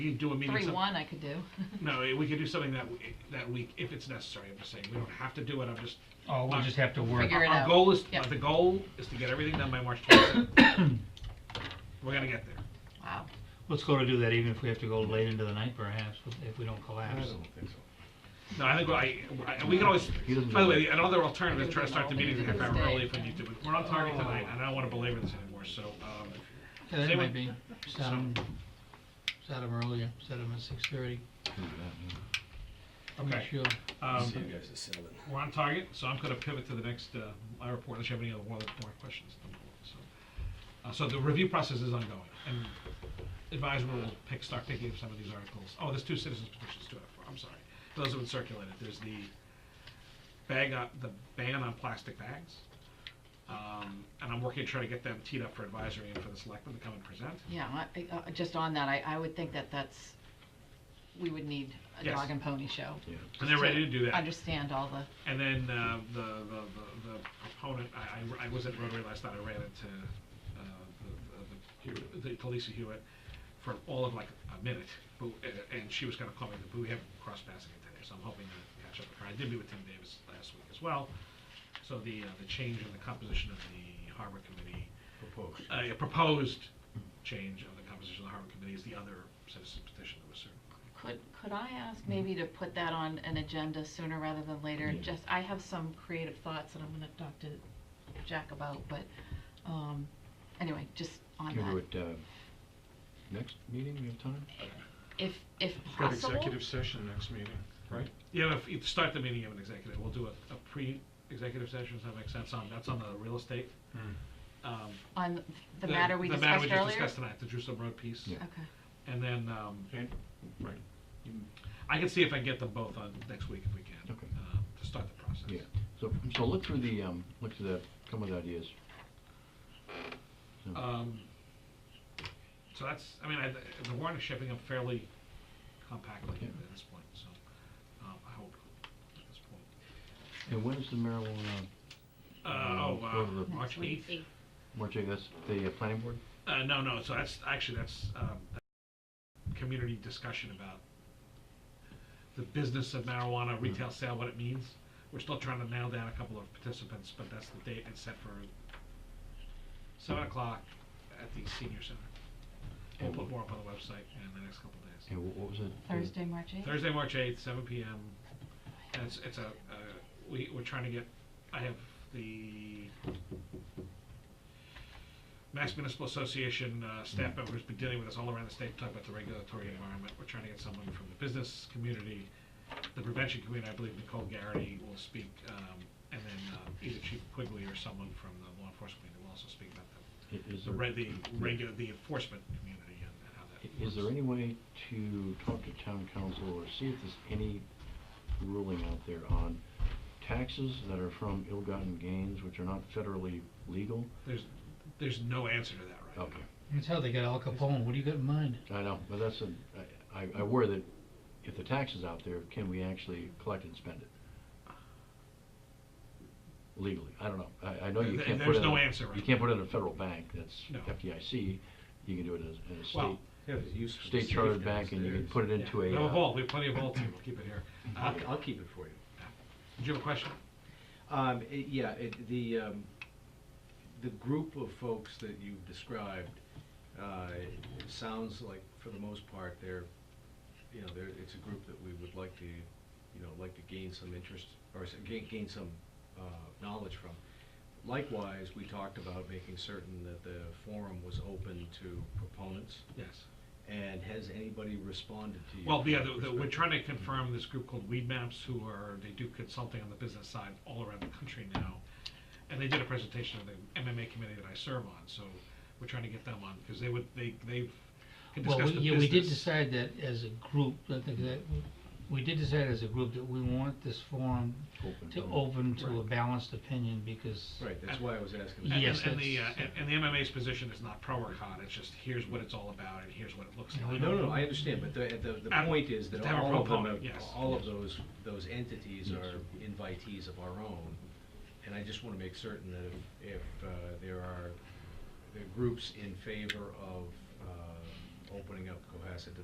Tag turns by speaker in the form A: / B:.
A: You do a meeting.
B: Three
A: some-
B: one I could do.
A: No, eh, we could do something that, w- that week if it's necessary, I'm just saying, we don't have to do it, I'm just.
C: Oh, we'll just have to work.
B: Figure it
A: Our
B: out.
A: goal is,
B: Yep.
A: the goal is to get everything done by March twenty-seventh. We're gonna get there.
B: Wow.
C: Let's go to do that, even if we have to go late into the night perhaps, if we don't collapse.
A: No, I think, I, I- we can always,
D: He doesn't
A: by the
D: know.
A: way, another alternative is try to start the meeting a half hour
B: Tuesday.
A: early if we need to, but we're on target tonight, and I don't wanna belabor this anymore, so, um,
C: Yeah, that
A: Same
C: might
A: with-
C: be, set them, set 'em earlier, set 'em at six thirty, I'm not
A: okay.
C: sure.
A: Um,
E: you guys at seven.
A: we're on target, so I'm gonna pivot to the next, uh, my report, unless you have any other, more, more questions. So, Uh, so the review process is ongoing, and advisor will pick, start picking up some of these articles. Oh, there's two citizens petitions to it, I'm sorry. Those have been circulated, there's the bag, on- the ban on plastic bags. Um, and I'm working to try to get them teed up for advisory and for the selectmen to come and present.
B: Yeah, I- I- uh, just on that, I, I would think that that's, we would need a
A: Yes.
B: dog and pony show.
A: And they're
B: to
A: ready to do that.
B: Understand all the,
A: And then uh, the, the, the- the proponent, I, I- I was at Rotary last night, I ran into uh, the, the- the, Hew- the Talisa Hewitt for all of like a minute, but, uh, and she was gonna call me, but we haven't crossed paths again today, so I'm hoping to catch up with her. I did meet with Tim Davis last week as well. So the, uh, the change in the composition of the harbor committee, uh, a proposed change of the composition of the harbor committee is the other citizen petition that was served.
B: could, could I
A: Mm-hmm.
B: ask maybe to put that on an agenda sooner rather than later? And Just, I have some creative thoughts that I'm gonna talk to Jack about, but, um, anyway, just on
D: Can do
B: that.
D: it, uh, next meeting, we have time?
B: If, if
F: Got
B: possible.
F: executive session next meeting, right?
A: Yeah, if you start the meeting of an executive, we'll do a, a pre-executive session, does that make sense? Um, that's on the real estate. Um,
B: On the matter we
A: The matter
B: discussed
A: we just
B: earlier?
A: discussed tonight, the Jerusalem Road piece.
D: Yeah.
B: Okay.
A: And then, um,
F: And, right.
A: I can see if I can get them both on next week if we can,
D: Okay.
A: uh, to start the process.
D: Yeah, so, so look through the, um, look through the, come with ideas. So,
A: Um, so that's, I mean, I, the warrant is shaping up fairly compactly
D: Yeah.
A: at this point, so, um, I hope, at this point.
D: And when is the marijuana,
A: Uh, oh,
D: go to the-
A: uh, March eighth?
D: March eighth, that's the uh, planning board?
A: Uh, no, no, so that's, actually, that's, um, a community discussion about the business of marijuana, retail sale, what it means. We're still trying to nail down a couple of participants, but that's the date, it's set for seven o'clock at the senior center. We'll put more up on the website in the next couple of days.
D: And wha- what was it? The-
B: Thursday, March eighth?
A: Thursday, March eighth, seven P M. And it's, it's a, uh, we, we're trying to get, I have the Mass Municipal Association, uh, staff
D: Hmm.
A: members been dealing with us all around the state, talking about the regulatory environment. We're trying to get someone from the business community, the prevention community, I believe Nicole Garrity will speak, um, and then, uh, either Chief Quigley or someone from the law enforcement community will also speak about the,
D: i- Is
A: the
D: there-
A: reg, the regu- the enforcement community and how that
D: i- Is there
A: works.
D: any way to talk to town council or see if there's any ruling out there on taxes that are from ill-gotten gains, which are not federally legal?
A: There's, there's no answer to that right now.
D: Okay.
C: That's how they got Al Capone, what do you got in mind?
D: I know, but that's a, I, I- I worry that if the tax is out there, can we actually collect and spend it? Legally, I don't know, I, I know you
A: Th-
D: can't put it.
A: there's
D: in
A: no
D: a-
A: answer right
D: You can't put it in a federal bank, that's
A: No.
D: FDIC, you can do it as, in a
A: Well,
D: state, state chartered bank, and you can put it into
A: Yeah,
D: a.
A: We have a
D: uh,
A: vault, we have plenty of vaults here, we'll keep it here. Uh,
E: I'll, I'll keep it for you.
A: Did you have a question?
E: Um, it- yeah, it, the, um, the group of folks that you've described, uh, it sounds like, for the most part, they're, you know, they're, it's a group that we would like to, you know, like to gain some interest, or s- gain, gain some, uh, knowledge from. Likewise, we talked about making certain that the forum was open to proponents,
A: Yes.
E: and has anybody responded to you?
A: Well,
E: from
A: yeah,
E: that
A: the- the- we're
E: perspective?
A: trying to confirm this group called Weed Maps, who are, they do consulting on the business side all around the country now. And they did a presentation of the MMA committee that I serve on, so we're trying to get them on, because they would, they, they've, can
C: Well,
A: discuss
C: we-
A: the
C: yeah, we did
A: business.
C: decide that as a group, I think that, we did decide as a group that we want this forum
D: open
C: to
D: door.
C: open to a
A: Right.
C: balanced opinion because.
E: Right, that's why I was asking.
A: And-
E: that.
C: Yes,
A: And and the, uh,
C: that's-
A: and and the MMA's position is not pro or con, it's just, here's what it's all about, and here's what it looks
C: Yeah, we
A: like.
E: No, no, I understand, but the, the, the
A: Uh,
E: point is that
A: to have a
E: all of them,
A: proponent,
E: are-
A: yes.
E: all of those, those entities are invitees of our own. And I just wanna make certain that if, if, uh, there are, there are groups in favor of, uh, opening up Cohasset to